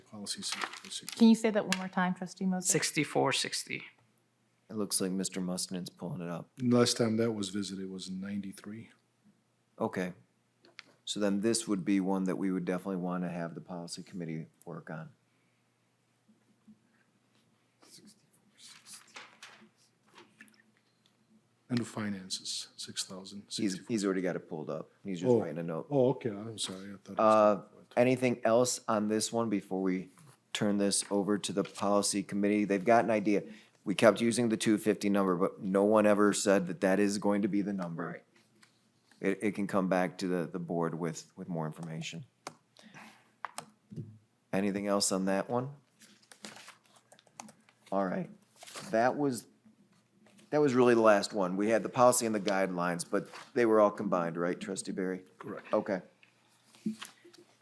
policy sixty-four sixty. Can you say that one more time, trustee Moses? 6460. It looks like Mr. Mustin's pulling it up. Last time that was visited was in ninety-three. Okay. So then this would be one that we would definitely want to have the policy committee work on. Under finances, six thousand He's, sixty-four. he's already got it pulled up. He's just Oh. writing a note. Oh, okay, I'm sorry, I thought. it Uh, was- Anything else on this one before we turn this over to the policy committee? They've got an idea. We kept using the two fifty number, but no one ever said that that is going to be the number. It, it can come back to the, the board with, with more information. Anything else on that one? All right, that was, that was really the last one. We had the policy and the guidelines, but they were all combined, right, trustee Barry? Correct. Okay.